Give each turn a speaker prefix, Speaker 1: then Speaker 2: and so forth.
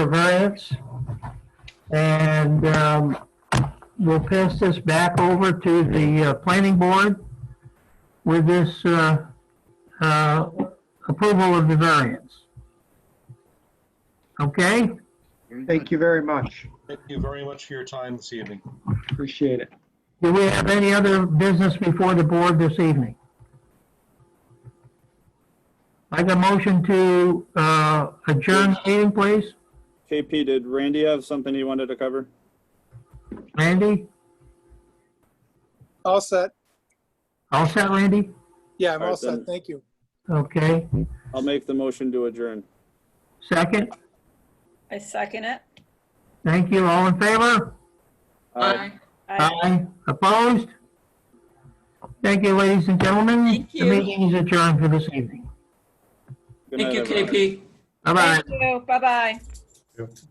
Speaker 1: for variance. And um, we'll pass this back over to the uh, planning board with this uh, uh, approval of the variance. Okay?
Speaker 2: Thank you very much.
Speaker 3: Thank you very much for your time this evening.
Speaker 2: Appreciate it.
Speaker 1: Do we have any other business before the board this evening? Like a motion to uh, adjourn the meeting, please?
Speaker 4: KP, did Randy have something he wanted to cover?
Speaker 1: Randy?
Speaker 5: All set.
Speaker 1: All set, Randy?
Speaker 5: Yeah, I'm
Speaker 4: All right,
Speaker 5: all
Speaker 4: then.
Speaker 5: set. Thank you.
Speaker 1: Okay.
Speaker 4: I'll make the motion to adjourn.
Speaker 1: Second?
Speaker 6: I second it.
Speaker 1: Thank you. All in favor?
Speaker 4: Aye.
Speaker 6: I
Speaker 1: Aye. Opposed? Thank you, ladies and gentlemen.
Speaker 7: Thank you.
Speaker 1: The meeting is adjourned for this evening.
Speaker 4: Good
Speaker 7: Thank
Speaker 4: night,
Speaker 7: you,
Speaker 4: everyone.
Speaker 7: KP.
Speaker 1: Bye-bye.
Speaker 6: Thank you. Bye-bye.